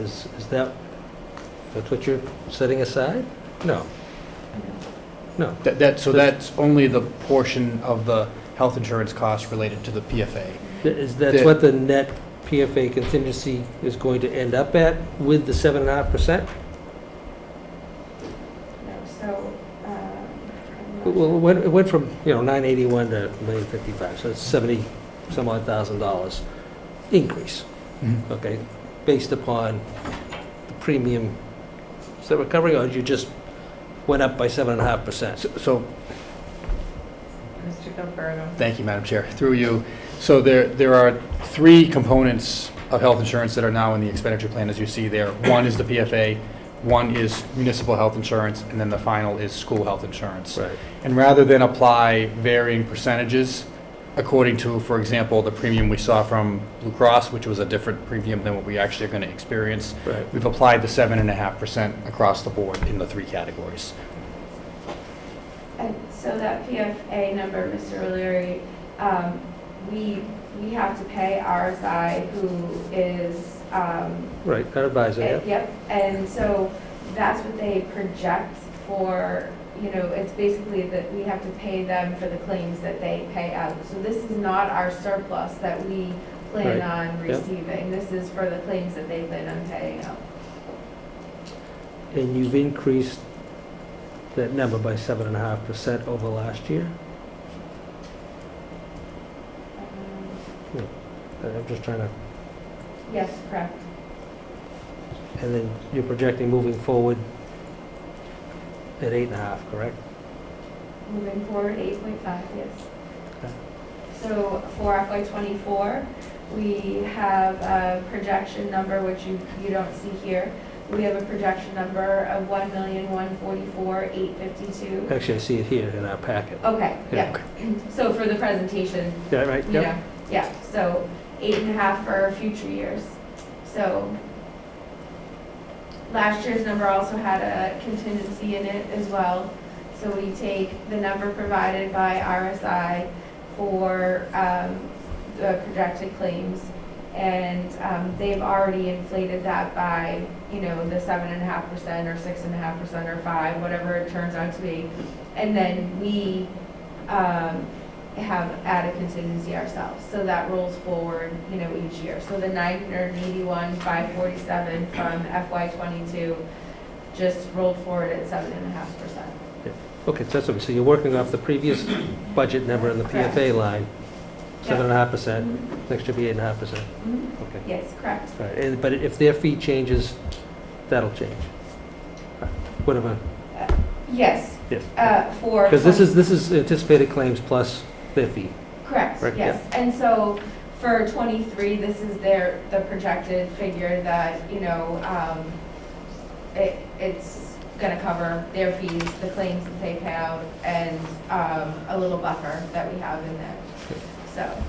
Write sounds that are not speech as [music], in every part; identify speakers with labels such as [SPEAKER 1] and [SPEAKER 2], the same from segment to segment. [SPEAKER 1] Is, is that, that's what you're setting aside? No. No.
[SPEAKER 2] That, that, so that's only the portion of the health insurance cost related to the PFA.
[SPEAKER 1] Th- Is, that's
[SPEAKER 2] The-
[SPEAKER 1] what the net PFA contingency is going to end up at with the seven and a half percent?
[SPEAKER 3] No, so, um, I'm not
[SPEAKER 1] Well, it went, it went from, you know, nine eighty-one to million fifty-five, so it's seventy some odd thousand dollars increase, okay? Based upon the premium, is that recovering, or you just went up by seven and a half percent?
[SPEAKER 2] So- So,
[SPEAKER 3] Mr. Gilberto.
[SPEAKER 2] thank you, Madam Chair, through you. So there, there are three components of health insurance that are now in the expenditure plan, as you see there. One is the PFA, one is municipal health insurance, and then the final is school health insurance.
[SPEAKER 1] Right.
[SPEAKER 2] And rather than apply varying percentages according to, for example, the premium we saw from Blue Cross, which was a different premium than what we actually are going to experience,
[SPEAKER 1] Right.
[SPEAKER 2] we've applied the seven and a half percent across the board in the three categories.
[SPEAKER 3] And so that PFA number, Mr. O'Leary, um, we, we have to pay RSI who is, um,
[SPEAKER 1] Right, our advisor, yeah.
[SPEAKER 3] Uh, Yep, and so that's what they project for, you know, it's basically that we have to pay them for the claims that they pay out. So this is not our surplus that we plan
[SPEAKER 1] Right,
[SPEAKER 3] on
[SPEAKER 1] yep.
[SPEAKER 3] receiving. This is for the claims that they plan on paying out.
[SPEAKER 1] And you've increased that number by seven and a half percent over last year?
[SPEAKER 3] Um,
[SPEAKER 1] Uh, I'm just trying to,
[SPEAKER 3] Yes, correct.
[SPEAKER 1] and then you're projecting moving forward at eight and a half, correct?
[SPEAKER 3] Moving forward, eight point five, yes.
[SPEAKER 1] Okay.
[SPEAKER 3] So for FY twenty-four, we have a projection number, which you, you don't see here. We have a projection number of one million, one forty-four, eight fifty-two.
[SPEAKER 1] Actually, I see it here in our packet.
[SPEAKER 3] Okay, Oh, yeah,
[SPEAKER 1] okay.
[SPEAKER 3] so for the presentation,
[SPEAKER 1] Yeah, right,
[SPEAKER 3] you
[SPEAKER 1] yeah.
[SPEAKER 3] know, yeah, so eight and a half for future years. So last year's number also had a contingency in it as well. So we take the number provided by RSI for um, the projected claims. And um, they've already inflated that by, you know, the seven and a half percent or six and a half percent or five, whatever it turns out to be. And then we um, have added contingency ourselves, so that rolls forward, you know, each year. So the nine hundred and eighty-one, five forty-seven from FY twenty-two just rolled forward at seven and a half percent.
[SPEAKER 1] Okay, so that's what, so you're working off the
[SPEAKER 3] [coughs]
[SPEAKER 1] previous budget number in the PFA line, seven and a half percent,
[SPEAKER 3] Mm-hmm.
[SPEAKER 1] next year be eight and a half percent,
[SPEAKER 3] Mhm.
[SPEAKER 1] okay.
[SPEAKER 3] Yes, correct.
[SPEAKER 1] All right, and- But if their fee changes, that'll change. Whatever,
[SPEAKER 3] Yes,
[SPEAKER 1] yes.
[SPEAKER 3] uh, for.
[SPEAKER 1] Because this is, this is anticipated claims plus their fee.
[SPEAKER 3] Correct,
[SPEAKER 1] Right,
[SPEAKER 3] yes. And so for twenty-three, this is their, the projected figure that, you know, um, it, it's gonna cover their fees, the claims that they pay out, and, um, a little buffer that we have in there. So,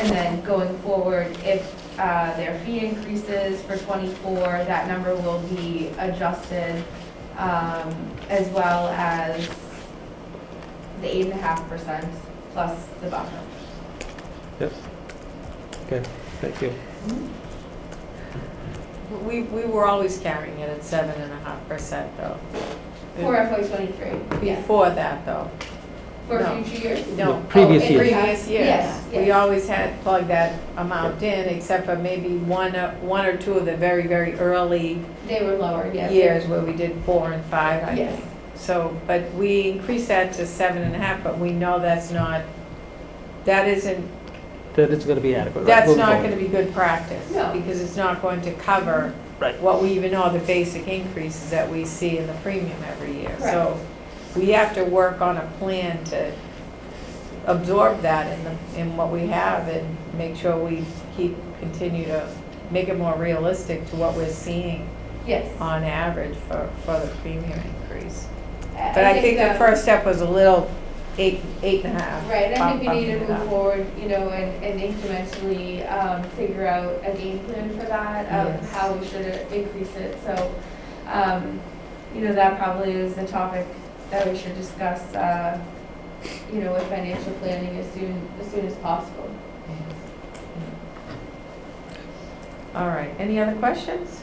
[SPEAKER 3] and then going forward, if, uh, their fee increases for twenty-four, that number will be adjusted, um, as well as the eight and a half percent plus the buffer.
[SPEAKER 1] Yes. Okay, thank you.
[SPEAKER 4] We, we were always carrying it at seven and a half percent though.
[SPEAKER 3] For FY twenty-three, yes.
[SPEAKER 4] Before that though,
[SPEAKER 3] For
[SPEAKER 4] No.
[SPEAKER 3] future years?
[SPEAKER 1] No,
[SPEAKER 4] no.
[SPEAKER 1] previous
[SPEAKER 4] Oh,
[SPEAKER 1] years.
[SPEAKER 4] Previous years.
[SPEAKER 3] Yes,
[SPEAKER 4] We
[SPEAKER 3] yes.
[SPEAKER 4] always had plugged that amount in, except for maybe one, uh, one or two of the very, very early
[SPEAKER 3] They were lower, yes.
[SPEAKER 4] years where we did four and five, I
[SPEAKER 3] Yes.
[SPEAKER 4] think. So, but we increased that to seven and a half, but we know that's not, that isn't,
[SPEAKER 1] That is going to be adequate. right,
[SPEAKER 4] that's
[SPEAKER 1] moving
[SPEAKER 4] not
[SPEAKER 1] forward.
[SPEAKER 4] gonna be good practice.
[SPEAKER 3] No.
[SPEAKER 4] Because it's not going to cover
[SPEAKER 1] Right.
[SPEAKER 4] what we even know, the basic increases that we see in the premium every year.
[SPEAKER 3] Correct.
[SPEAKER 4] So we have to work on a plan to absorb that in the, in what we have and make sure we keep, continue to make it more realistic to what we're seeing
[SPEAKER 3] Yes.
[SPEAKER 4] on average for, for the premium increase.
[SPEAKER 3] I-
[SPEAKER 4] Uh, But I think the
[SPEAKER 3] um,
[SPEAKER 4] first step was a little eight, eight and a half.
[SPEAKER 3] Right, I think we
[SPEAKER 4] bump-
[SPEAKER 3] need to
[SPEAKER 4] bumping it
[SPEAKER 3] move
[SPEAKER 4] up.
[SPEAKER 3] forward, you know, and, and incrementally, um, figure out a game plan for that, of
[SPEAKER 4] Yes.
[SPEAKER 3] how we should increase it, so, um, you know, that probably is the topic that we should discuss, uh, you know, with financial planning as soon, as soon as possible.
[SPEAKER 4] All right, any other questions?